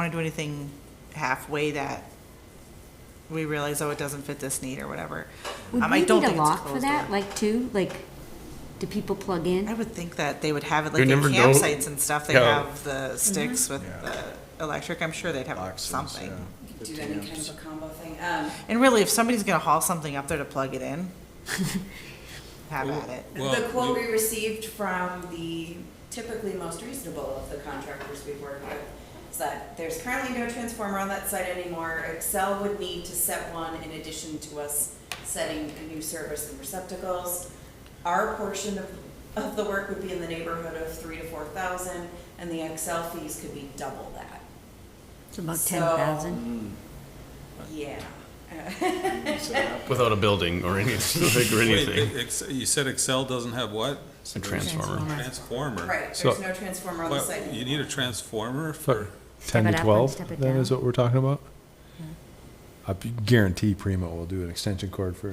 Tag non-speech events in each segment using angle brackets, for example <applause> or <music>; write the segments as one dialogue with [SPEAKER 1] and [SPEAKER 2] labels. [SPEAKER 1] want to do anything halfway that we realize, oh, it doesn't fit this need or whatever.
[SPEAKER 2] Would
[SPEAKER 1] Um,
[SPEAKER 2] we
[SPEAKER 1] I
[SPEAKER 2] need
[SPEAKER 1] don't
[SPEAKER 2] a
[SPEAKER 1] think it's
[SPEAKER 2] lock for
[SPEAKER 1] closed
[SPEAKER 2] that,
[SPEAKER 1] door.
[SPEAKER 2] like, too? Like, do people plug
[SPEAKER 1] I
[SPEAKER 2] in?
[SPEAKER 1] would think that they would have it,
[SPEAKER 3] You
[SPEAKER 1] like the
[SPEAKER 3] never know.
[SPEAKER 1] campsites and stuff, they
[SPEAKER 3] Yeah.
[SPEAKER 1] have
[SPEAKER 2] Mm-hmm.
[SPEAKER 1] the sticks with
[SPEAKER 4] Yeah.
[SPEAKER 1] the electric, I'm sure they'd have
[SPEAKER 4] boxes,
[SPEAKER 1] something.
[SPEAKER 4] yeah.
[SPEAKER 5] do any kind of a combo thing. Um,
[SPEAKER 1] And really, if somebody's gonna haul something up there to plug it
[SPEAKER 2] <laughs>
[SPEAKER 1] in, have at it.
[SPEAKER 5] the quote we received from the typically most reasonable of the contractors we've worked with is that there's currently no transformer on that site anymore. Excel would need to set one in addition to us setting a new service and receptacles. Our portion of, of the work would be in the neighborhood of three to four thousand, and the Excel fees could be double that.
[SPEAKER 2] It's about
[SPEAKER 5] So-
[SPEAKER 2] ten thousand.
[SPEAKER 5] Yeah.
[SPEAKER 3] Without a building or <laughs> anything, or
[SPEAKER 6] Wait,
[SPEAKER 3] anything,
[SPEAKER 6] Ex- You said Excel doesn't have what?
[SPEAKER 3] a transformer.
[SPEAKER 6] Transformer.
[SPEAKER 5] Right,
[SPEAKER 3] So-
[SPEAKER 5] there's no transformer on the
[SPEAKER 6] What,
[SPEAKER 5] site
[SPEAKER 6] you
[SPEAKER 5] anymore.
[SPEAKER 6] need a transformer for,
[SPEAKER 4] 10
[SPEAKER 2] Step it
[SPEAKER 4] to
[SPEAKER 2] up one, step
[SPEAKER 4] 12,
[SPEAKER 2] it
[SPEAKER 4] then is
[SPEAKER 2] down.
[SPEAKER 4] what we're talking about? I b- guarantee Primo will do an extension cord for,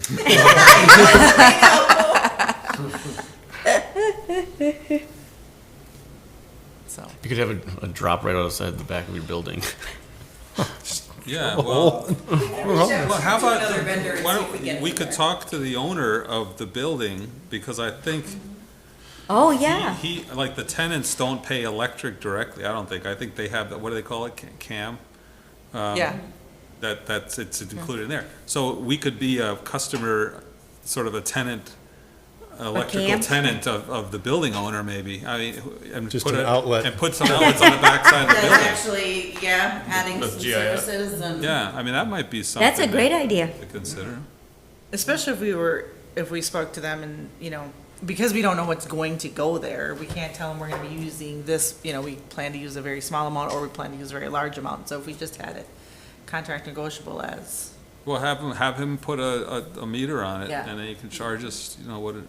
[SPEAKER 1] So,
[SPEAKER 3] You could have a, a drop right outside the back of your building.
[SPEAKER 6] yeah, well, well, how about,
[SPEAKER 5] Another vendor and
[SPEAKER 6] why
[SPEAKER 5] see if we get
[SPEAKER 6] don't, we
[SPEAKER 5] it
[SPEAKER 6] could
[SPEAKER 5] there.
[SPEAKER 6] talk to the owner of the building, because I think
[SPEAKER 2] Oh,
[SPEAKER 6] he-
[SPEAKER 2] yeah.
[SPEAKER 6] he, like, the tenants don't pay electric directly, I don't think, I think they have, that. what do they call it, Ca- cam? Um,
[SPEAKER 1] yeah,
[SPEAKER 6] That, that's, it's included in there. So we could be a customer, sort of a tenant, electrical
[SPEAKER 2] camp?
[SPEAKER 6] tenant of, of the building owner, maybe. I mean, who- and
[SPEAKER 4] Just
[SPEAKER 6] put
[SPEAKER 4] an
[SPEAKER 6] a-
[SPEAKER 4] outlet.
[SPEAKER 6] And put some outlets on the
[SPEAKER 2] <laughs>
[SPEAKER 6] backside of the
[SPEAKER 5] That's
[SPEAKER 6] building.
[SPEAKER 5] actually, yeah, adding
[SPEAKER 6] With
[SPEAKER 5] some
[SPEAKER 6] GIS.
[SPEAKER 5] services and.
[SPEAKER 6] Yeah, I mean, that might be something.
[SPEAKER 2] That's a great idea.
[SPEAKER 6] To consider.
[SPEAKER 1] especially if we were, if we spoke to them and, you know, because we don't know what's going to go there, we can't tell them we're gonna be using this, you know, we plan to use a very small amount or we plan to use a very large amount. So if we just had it contract negotiable as,
[SPEAKER 6] Well, have him, have him put a, a, a meter on it,
[SPEAKER 1] Yeah.
[SPEAKER 6] and then he can charge us, you know, what, it-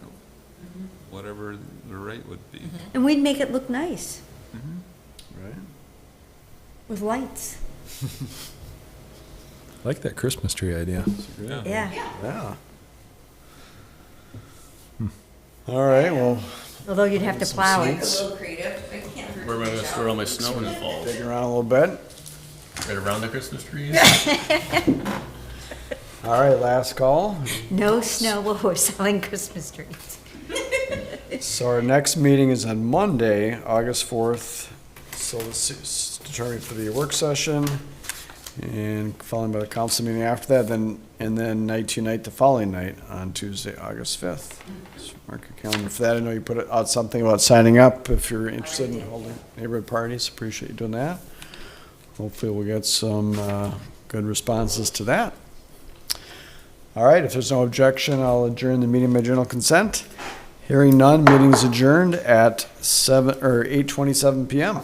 [SPEAKER 6] whatever the rate would be.
[SPEAKER 2] And we'd make it look nice
[SPEAKER 6] Mm-hmm.
[SPEAKER 4] right?
[SPEAKER 2] with lights.
[SPEAKER 4] I like that Christmas tree idea.
[SPEAKER 6] Yeah.
[SPEAKER 2] Yeah.
[SPEAKER 7] Yeah. Hmm. All right, well,
[SPEAKER 2] Although you'd have to plow
[SPEAKER 5] Like a
[SPEAKER 2] it.
[SPEAKER 5] little creative, I can't. hurt
[SPEAKER 3] Where am I gonna
[SPEAKER 5] myself.
[SPEAKER 3] store all my snow when it falls?
[SPEAKER 7] dig around a little bit.
[SPEAKER 3] Right around the Christmas trees?
[SPEAKER 7] All right, last call.
[SPEAKER 2] No snow while we're <laughs> selling Christmas trees.
[SPEAKER 7] So our next meeting is on Monday, August fourth. So this is determined for the work session and followed by the council meeting after that, then, and then night to night the following night on Tuesday, August fifth. Mark your calendar for that. I know you put out something about signing up if you're interested in holding neighborhood parties. Appreciate you doing that. Hopefully we'll get some, uh, good responses to that. All right, if there's no objection, I'll adjourn the meeting by general consent. Hearing none, meeting's adjourned at seven, or eight twenty-seven PM.